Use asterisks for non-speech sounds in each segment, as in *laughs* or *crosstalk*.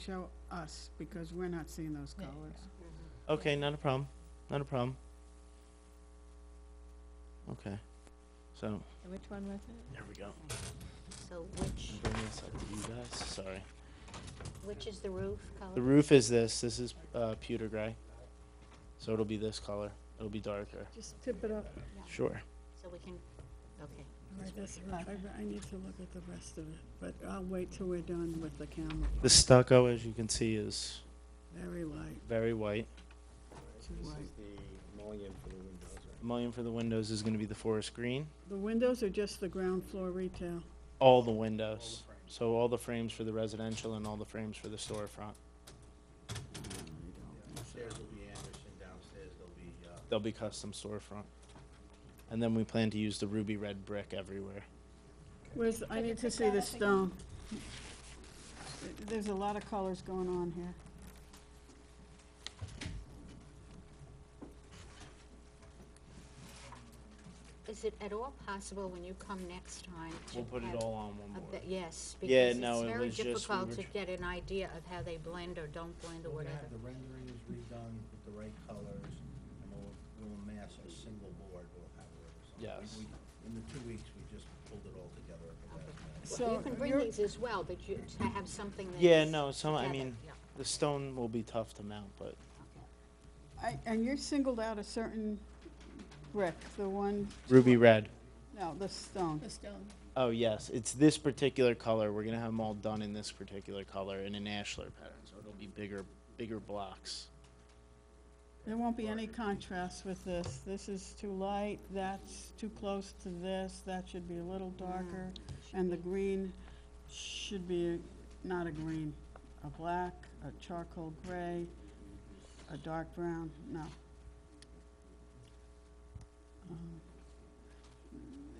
show us, because we're not seeing those Yeah, colors. Okay, not a problem, not a problem. Okay, so, And Which one was it? there we go. So which, I'm bringing this up to you guys, sorry. which is the roof The color? roof is this, this is, uh, pewter gray. So it'll be this color, it'll be darker. Just tip it up. Sure. So we can, okay. Right, that's right. I, I need to look at the rest of it, but I'll wait till we're done with the camera. The stucco, as you can see, is Very light, very white. too light. the mullion for the windows, right? Mullion for the windows is gonna be the forest green. The windows are just the ground floor retail. All the windows. So all the frames for the residential and all the frames for the storefront. Upstairs will be Anderson, downstairs there'll be, uh, They'll be custom storefront. And then we plan to use the ruby red brick everywhere. Where's, I need to see the stone. There's a lot of colors going on here. Is it at all possible when you come next time to We'll put it have all on one a board. be- Yes, Yeah, because no, it's it very was just we difficult were to tr- get an idea of how they blend or don't blend or we're gonna whatever. have the renderings redone with the right colors, and we'll, we'll mass a single board, we'll have it. or something. Yes. We- we- In the two weeks, we just pulled it all together at the last minute. Well, So You can bring you're- these as well, but you, to have something that's. Yeah, no, some, I together, mean, yeah, the stone will be tough to mount, but okay. I- And you're singled out a certain brick, the one, ruby red. no, the stone. The stone. Oh, yes, it's this particular color. We're gonna have them all done in this particular color in an ashlar pattern, so it'll be bigger, bigger blocks. There won't be any contrast with this. This is too light, that's too close to this, that should be a little darker. And the green should be not a green, a black, a charcoal gray, a dark brown, no. Um,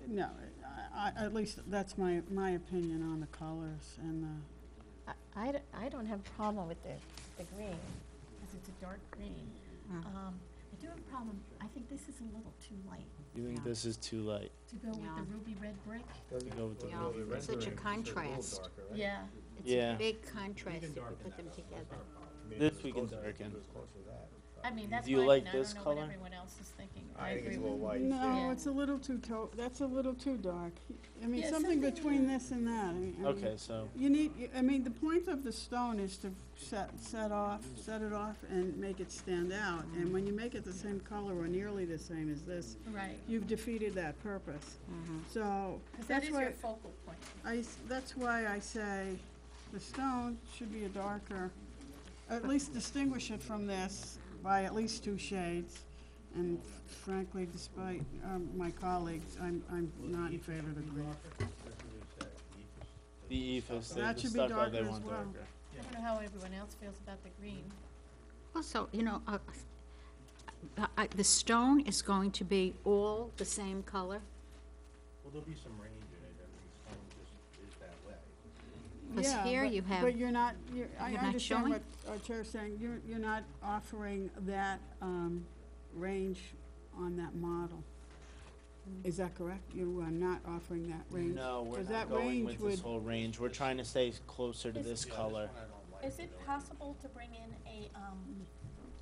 No, I, I, at least that's my, my opinion on the colors and the, I, I d- I don't have a problem with the, the green, because it's a dark green. Mm. Um, I do have a problem, I think this is a little too light You think Yeah. this is too light? to go with the Yeah. ruby red brick. You go with the Yeah, ruby it's red. such a Renderings, so they're contrast. A little darker, right? Yeah. It's Yeah. a big contrast if you put them together. I mean, This if it we can was closer, I think darken. it was closer to that. I mean, that's Do you my like opinion, I this don't know what color? everyone else is thinking. I think it's a agree little with- white. no, Yeah. it's a little too to, that's a little too dark. I mean, Yeah, something something between that- this and that. I mean- I mean- Okay, so You need, you- I mean, the point of the stone is to set, set off, set it off and make it stand out. And when you make it the same color or nearly the same as this, Right, you've defeated that purpose. So, Mm-hmm. because that that's is your why, focal point. I, s- that's why I say the stone should be a darker, at least distinguish it from this by at least two shades. And frankly, despite um, my colleagues, I'm, I'm not in favor of the green. *laughs* the ethos, the That the should be stucco, they darker as want well. darker. I don't know how everyone else feels about the green. Also, you know, uh, uh, uh, the stone is going to be all the same color? Well, there'll be some range in it, I mean, it's kind of just, is that way. Because Yeah, here but- you have, But you're not, you're, I you're not understand showing? what our chair's saying, you're, you're not offering that, um, range on that model. Is that correct? You are not offering that range? No, we're 'Cause that not going range with this would- whole range. We're trying to stay closer to Is- this Yeah, color. This one I don't like. Is it possible to bring in a, um,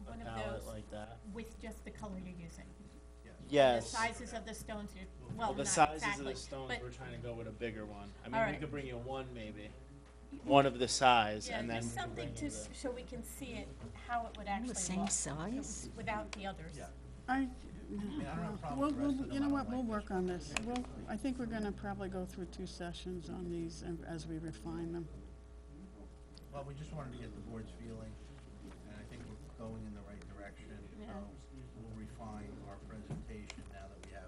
A one of palette those like that. with just the color you're using? The Yes. sizes of the stones you're, well, Well, not the exactly, sizes of the stones, but we're trying to go with a bigger one. I All mean, we right. could bring you one maybe. One of the size Yeah, and then just we could something bring to, you s- the- so we can see it, how it would the actually same look size? without the others. Yeah. I, I don't have a problem well, with the rest we'll- of you know them, I what, don't we'll like work on this. We'll, I think we're gonna probably go through two sessions on these and- as we refine them. Well, we just wanted to get the board's feeling, and I think we're going in the right direction. Yeah. Um, We'll refine our presentation now that we have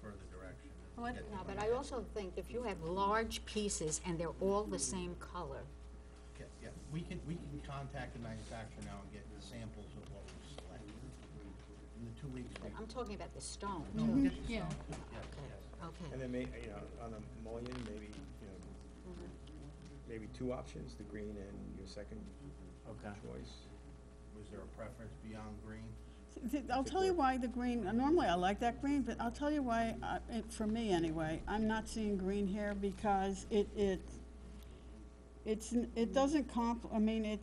further direction. and What- get the No, but right- Oh, I also think if you have large pieces and they're all the same color, Yeah, yeah. we can, we can contact the manufacturer now and get samples of what we selected. In the two weeks, we- I'm talking about the stone, No, too. we'll get the Mm-hmm. Yeah. samples, yes, yes. And Okay, then may, you know, on the mullion, maybe, you know, maybe two options, the green and your second Okay. choice. Was there a preference beyond green? Th- I'll tell you why the green, uh, normally I like that green, but I'll tell you why, uh, it- for me anyway, I'm not seeing green here because it, it, It's, n- it doesn't comp, I mean, it,